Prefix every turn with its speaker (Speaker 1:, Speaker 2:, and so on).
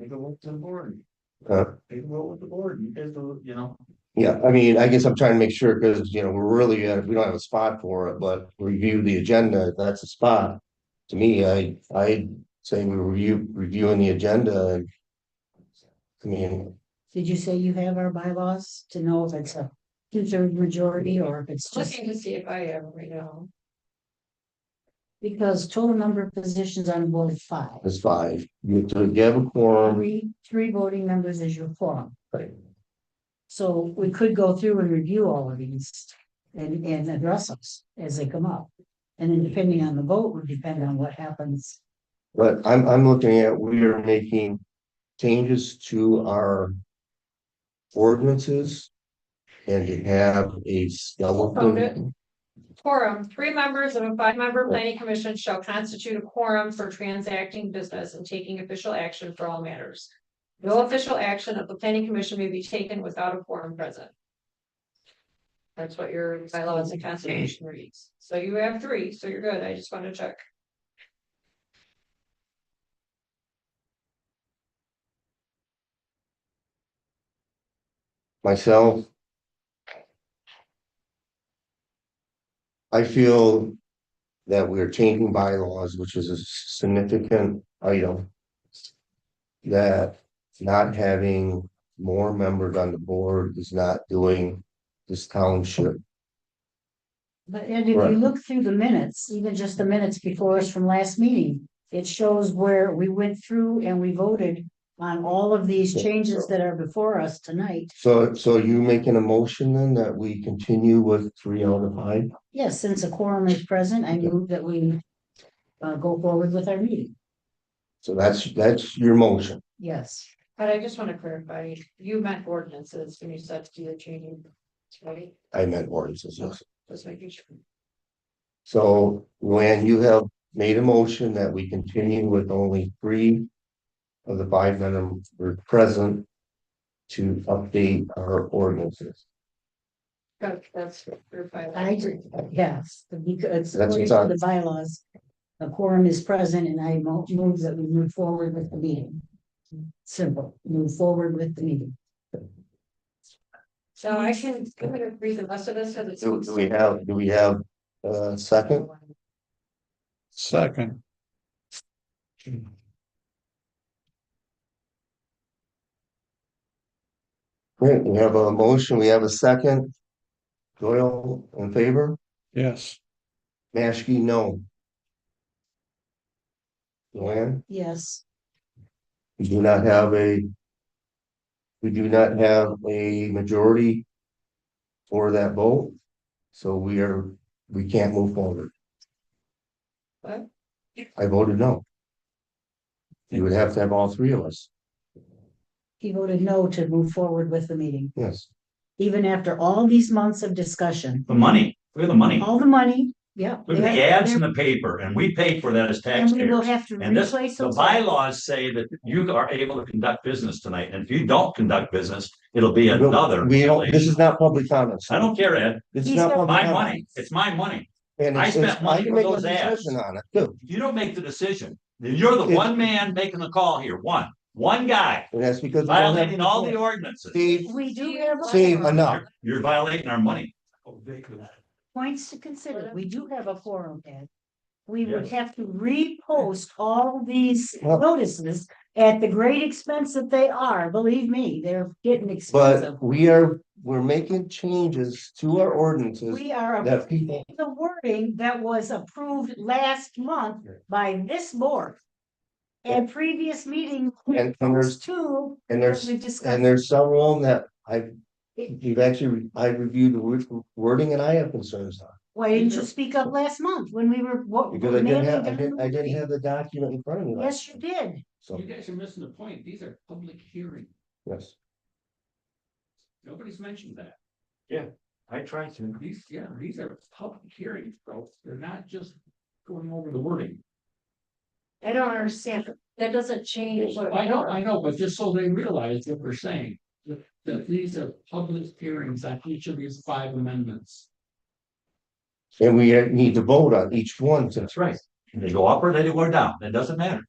Speaker 1: take a look to the board.
Speaker 2: Uh.
Speaker 1: Take a look with the board, you guys, do- you know,
Speaker 2: Yeah, I mean, I guess I'm trying to make sure, because, you know, we're really, uh, we don't have a spot for it, but review the agenda, if that's a spot. To me, I, I'd say we review, reviewing the agenda. and- I mean,
Speaker 3: Did you say you have our bylaws to know if it's a two-third majority or if it's just?
Speaker 4: Looking to see if I have them right now.
Speaker 3: Because total number of positions on board is five.
Speaker 2: it's five, you have to give a quorum,
Speaker 3: Three, three voting members is your quorum.
Speaker 2: Right.
Speaker 3: So we could go through and review all of these and, and address us as they come up. And then depending on the vote would depend on what happens.
Speaker 2: but I'm, I'm looking at, we are making changes to our. Ordinances. And to have a skeleton,
Speaker 4: Quorum, three members of a five-member planning commission shall constitute a quorum for transacting business and taking official action for all matters. No official action of the planning commission may be taken without a quorum present. That's what your bylaws and constitution reads. So you have three, so you're good. I just want to check.
Speaker 2: myself. I feel that we're changing bylaws, which is a significant item. That not having more members on the board is not doing this township.
Speaker 3: But and if
Speaker 2: Right.
Speaker 3: you look through the minutes, even just the minutes before us from last meeting, it shows where we went through and we voted on all of these changes that are before us tonight.
Speaker 2: So, so are you making a motion then that we continue with three out of five?
Speaker 3: Yes, since a quorum is present, I move that we uh, go forward with our meeting.
Speaker 2: So that's, that's your motion.
Speaker 3: Yes.
Speaker 4: But I just want to clarify, you meant ordinances when you said to the changing. Right,
Speaker 2: I meant ordinances, yes.
Speaker 4: just making sure.
Speaker 2: So when you have made a motion that we continue with only three of the five that are present to update our ordinances.
Speaker 4: That- That's your bylaw.
Speaker 3: I agree. Yes, because
Speaker 2: That's
Speaker 3: according
Speaker 2: what's
Speaker 3: to
Speaker 2: on.
Speaker 3: the bylaws, a quorum is present and I mo- move that we move forward with the meeting. Simple, move forward with the meeting.
Speaker 4: So I can, I'm gonna read the rest of this because it's.
Speaker 2: Do do we have, do we have a second?
Speaker 1: Second.
Speaker 2: Great, we have a motion, we have a second. Doyle in favor,
Speaker 1: yes,
Speaker 2: Maskey, no. Luann?
Speaker 3: Yes,
Speaker 2: We do not have a. We do not have a majority. For that vote. So we are, we can't move forward.
Speaker 4: What?
Speaker 2: I voted no. You would have to have all three of us,
Speaker 3: he voted no to move forward with the meeting,
Speaker 2: yes.
Speaker 3: even after all these months of discussion,
Speaker 5: The money, we have the money,
Speaker 3: all the money, Oh, yeah.
Speaker 5: we have the ads in the paper and we pay for that as
Speaker 3: And we will
Speaker 5: taxpayers.
Speaker 3: have to
Speaker 5: And this,
Speaker 3: replace
Speaker 5: the
Speaker 3: those.
Speaker 5: bylaws say that you are able to conduct business tonight, and if you don't conduct business, it'll be another.
Speaker 2: We don't, this is Oh,
Speaker 5: violation.
Speaker 2: not public comments.
Speaker 5: I don't care, Ed,
Speaker 2: This is
Speaker 3: He's
Speaker 2: not
Speaker 3: got
Speaker 2: public
Speaker 5: my
Speaker 2: comment.
Speaker 5: money, it's my money,
Speaker 2: And
Speaker 5: I
Speaker 2: it's- it's-
Speaker 5: spent money
Speaker 2: I can
Speaker 5: for
Speaker 2: make a
Speaker 5: those ads.
Speaker 2: decision on it, too.
Speaker 5: you don't make the decision, you're the
Speaker 2: It-
Speaker 5: one man making the call here, one, one guy,
Speaker 2: And that's because. we don't have
Speaker 5: violating all the
Speaker 2: control.
Speaker 5: ordinances.
Speaker 2: Steve,
Speaker 3: We do have a-
Speaker 2: Steve, enough.
Speaker 5: You're- You're violating our money.
Speaker 3: points to consider. We do have a forum, Ed. We would
Speaker 5: Yes.
Speaker 3: have to repost all these
Speaker 2: Well-
Speaker 3: notices at the great expense that they are. Believe me, they're getting expensive.
Speaker 2: But we are, we're making changes to our ordinances
Speaker 3: We are
Speaker 2: that
Speaker 3: approving
Speaker 2: people
Speaker 3: the wording that was approved last month by this board. At previous meeting,
Speaker 2: and and
Speaker 3: those
Speaker 2: there's,
Speaker 3: two,
Speaker 2: and
Speaker 3: as
Speaker 2: there's,
Speaker 3: we
Speaker 2: and
Speaker 3: discussed,
Speaker 2: there's several of them that I've. You've actually, I reviewed the word- wording and I have concerns on,
Speaker 3: why didn't you speak up last month when we were? what-
Speaker 2: because I didn't
Speaker 3: manning
Speaker 2: have, I
Speaker 3: down
Speaker 2: didn't,
Speaker 3: the
Speaker 2: I didn't
Speaker 3: meeting?
Speaker 2: have the document in front of me. last
Speaker 3: Oh, Yes, you did.
Speaker 2: So,
Speaker 6: You guys are missing the point. These are public hearings.
Speaker 2: yes,
Speaker 6: Nobody's mentioned that.
Speaker 5: I tried to.
Speaker 6: These, yeah, these are public hearings, folks. They're not just going over the wording.
Speaker 4: I don't understand. That doesn't change what.
Speaker 6: I know, I know, but just so they realize what we're saying, that, that these are public hearings on each of these five amendments.
Speaker 2: and we uh, need to vote on each one to
Speaker 5: That's right. They go up or they go down, it doesn't matter.